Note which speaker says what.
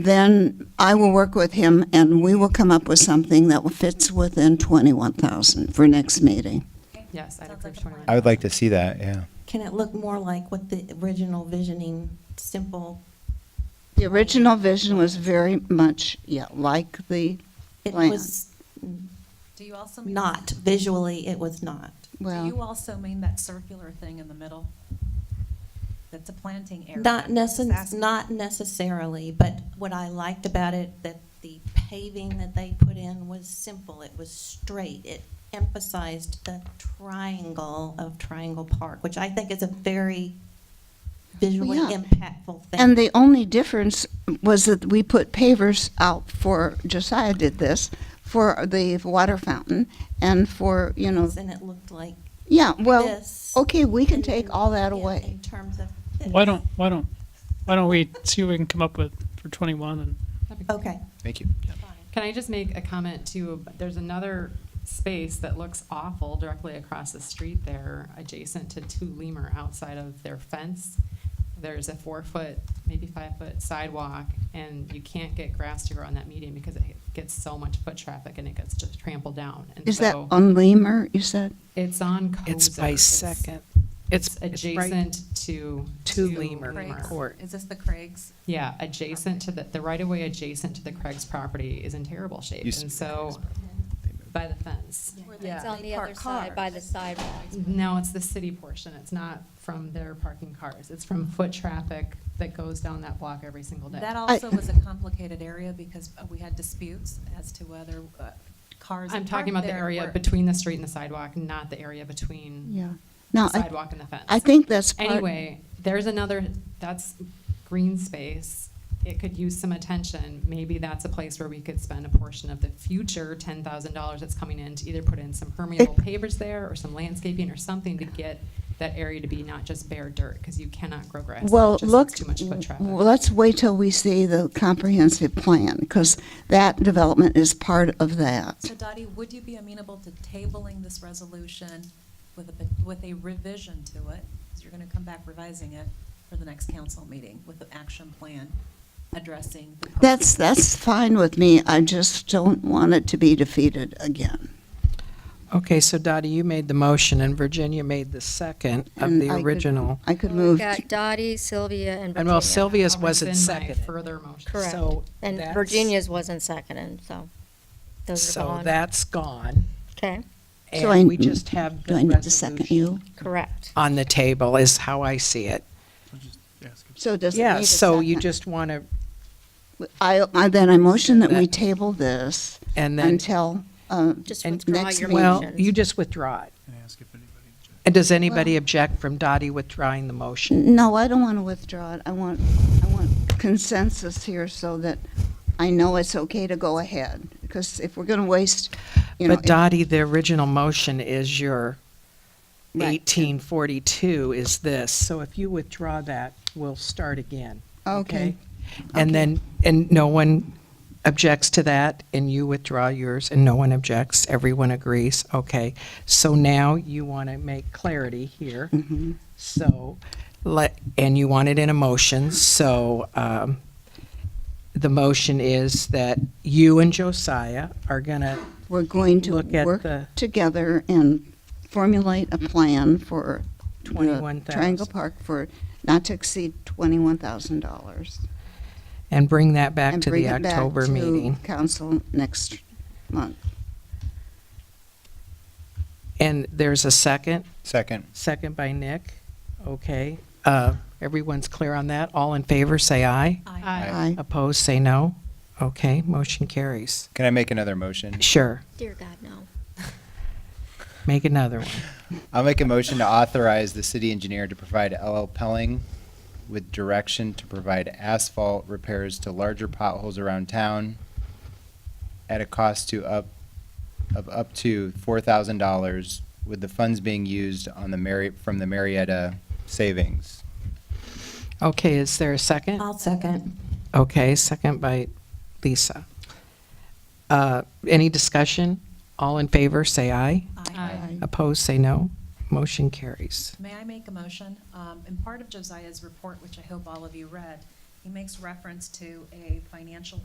Speaker 1: then I will work with him and we will come up with something that fits within 21,000 for next meeting.
Speaker 2: Yes, I'd
Speaker 3: Sounds
Speaker 2: approve
Speaker 3: like a plan.
Speaker 2: 21.
Speaker 4: I would like to see that, yeah.
Speaker 5: Can it look more like what the original visioning, simple?
Speaker 1: The original vision was very much, yeah, like the,
Speaker 5: It
Speaker 1: Plan.
Speaker 5: was
Speaker 3: Do you also mean?
Speaker 5: not, visually, it was not.
Speaker 3: Do you
Speaker 1: well,
Speaker 3: also mean that circular thing in the middle? That's a planting area.
Speaker 5: Not
Speaker 3: I'm just
Speaker 5: necess,
Speaker 3: asking.
Speaker 5: not necessarily, but what I liked about it, that the paving that they put in was simple, it was straight. It emphasized the triangle of Triangle Park, which I think is a very visually
Speaker 1: Well, yeah.
Speaker 5: impactful thing.
Speaker 1: and the only difference was that we put pavers out for, Josiah did this, for the water fountain and for, you know,
Speaker 5: And it looked like
Speaker 1: yeah, well,
Speaker 5: this.
Speaker 1: okay, we can
Speaker 5: And-
Speaker 1: take all that
Speaker 5: yeah,
Speaker 1: away.
Speaker 5: In terms of.
Speaker 6: Why don't, why don't, why don't we see what we can come up with for 21 and
Speaker 2: That'd be-
Speaker 5: Okay,
Speaker 4: Thank you.
Speaker 5: fine.
Speaker 2: Can I just make a comment too? There's another space that looks awful directly across the street there, adjacent to Two Lemur, outside of their fence. There's a four-foot, maybe five-foot sidewalk, and you can't get grass to grow on that median because it gets so much foot traffic and it gets just trampled down. And
Speaker 1: Is that
Speaker 2: so
Speaker 1: on Lemur, you said?
Speaker 2: It's on Kozer.
Speaker 7: It's by
Speaker 2: It's-
Speaker 7: second.
Speaker 2: It's
Speaker 7: It's
Speaker 2: adjacent to.
Speaker 7: to Lemur
Speaker 3: Craig's-
Speaker 7: Court.
Speaker 3: Is this the Craig's?
Speaker 2: Yeah, adjacent to the, the right of way adjacent to the Craig's property is in terrible shape.
Speaker 4: Used to
Speaker 2: And
Speaker 4: be
Speaker 2: so, by the fence.
Speaker 8: It's on the other side by the sidewalk.
Speaker 2: No, it's the city portion. It's not from their parking cars. It's from foot traffic that goes down that block every single day.
Speaker 3: That also was a complicated area because uh, we had disputes as to whether uh, cars.
Speaker 2: I'm talking
Speaker 3: parked
Speaker 2: about the
Speaker 3: there
Speaker 2: area
Speaker 3: were-
Speaker 2: between the street and the sidewalk, not the area between
Speaker 1: Yeah.
Speaker 2: the
Speaker 1: Now, I,
Speaker 2: sidewalk and the fence.
Speaker 1: I think that's part.
Speaker 2: Anyway, there's another, that's green space. It could use some attention. Maybe that's a place where we could spend a portion of the future ten thousand dollars that's coming in to either put in some permeable pavers there or some landscaping or something to get that area to be not just bare dirt, because you cannot grow grass. there.
Speaker 1: Well,
Speaker 2: It just
Speaker 1: look,
Speaker 2: gets Too much foot traffic.
Speaker 1: w- let's wait till we see the comprehensive plan, because that development is part of that.
Speaker 3: So Dottie, would you be amenable to tabling this resolution with a, with a revision to it? Because you're going to come back revising it for the next council meeting with an action plan addressing. the-
Speaker 1: That's, that's fine with me, I just don't want it to be defeated again.
Speaker 7: Okay, so Dottie, you made the motion and Virginia made the second of
Speaker 1: And
Speaker 7: the
Speaker 1: I could-
Speaker 7: original.
Speaker 1: I could
Speaker 8: We've
Speaker 1: move,
Speaker 8: got Dottie, Sylvia, and Virginia.
Speaker 7: And well, Sylvia's
Speaker 2: I'll
Speaker 7: wasn't
Speaker 2: rescind my
Speaker 7: seconded.
Speaker 2: Further motion.
Speaker 8: Correct.
Speaker 7: So
Speaker 8: And
Speaker 7: that's-
Speaker 8: Virginia's wasn't seconded, so those are
Speaker 7: So
Speaker 8: gone.
Speaker 7: that's gone.
Speaker 8: Okay,
Speaker 1: So I-
Speaker 7: And we just have
Speaker 1: do I
Speaker 7: the
Speaker 1: need to second
Speaker 7: resolution
Speaker 1: you?
Speaker 8: correct.
Speaker 7: on the table is how I see it.
Speaker 1: So does it need
Speaker 7: Yeah,
Speaker 1: a
Speaker 7: so you
Speaker 1: second?
Speaker 7: just want to,
Speaker 1: I, I- then I motion that we
Speaker 7: That-
Speaker 1: table this
Speaker 7: and then,
Speaker 1: until, uh,
Speaker 8: Just
Speaker 7: and
Speaker 8: withdraw
Speaker 1: next
Speaker 8: your
Speaker 1: week-
Speaker 7: well,
Speaker 8: motions.
Speaker 7: you just withdraw it.
Speaker 9: Can I ask if anybody objects?
Speaker 7: And does anybody object from Dottie withdrawing the motion?
Speaker 1: no, I don't want to withdraw it, I want, I want consensus here so that I know it's okay to go ahead, because if we're going to waste, you know.
Speaker 7: But Dottie, the original motion is your
Speaker 1: Right.
Speaker 7: 1842 is this. So if you withdraw that, we'll start again.
Speaker 1: Okay.
Speaker 7: And then, and no one objects to that, and you withdraw yours, and no one objects, everyone agrees, okay. So now you want to make clarity here,
Speaker 1: Mhm.
Speaker 7: so, let, and you want it in a motion, so, um, the motion is that you and Josiah are gonna,
Speaker 1: We're going to
Speaker 7: Look at
Speaker 1: work
Speaker 7: the-
Speaker 1: together and formulate a plan for the
Speaker 7: 21,000.
Speaker 1: Triangle Park for not to exceed twenty-one thousand dollars.
Speaker 7: and bring that back
Speaker 1: and
Speaker 7: to
Speaker 1: bring
Speaker 7: the
Speaker 1: it back
Speaker 7: October
Speaker 1: to
Speaker 7: meeting.
Speaker 1: Council next month.
Speaker 7: And there's a second,
Speaker 4: Second.
Speaker 7: second by Nick, okay. Uh, everyone's clear on that, all in favor, say aye.
Speaker 3: I-
Speaker 2: Aye.
Speaker 1: Aye.
Speaker 7: Opposed, say no. Okay, motion carries.
Speaker 4: Can I make another motion?
Speaker 7: Sure,
Speaker 8: Dear God, no.
Speaker 7: make another one.
Speaker 4: I'll make a motion to authorize the city engineer to provide LL Pelling with direction to provide asphalt repairs to larger potholes around town at a cost to up, of up to four thousand dollars, with the funds being used on the Mari, from the Marietta savings.
Speaker 7: Okay, is there a
Speaker 3: Um.
Speaker 7: second?
Speaker 5: I'll second.
Speaker 7: Okay, second by Lisa. Uh, Any discussion? All in favor, say aye.
Speaker 3: Aye.
Speaker 7: Opposed, say no. Motion carries.
Speaker 3: May I make a motion? Um, And part of Josiah's report, which I hope all of you read, he makes reference to a financial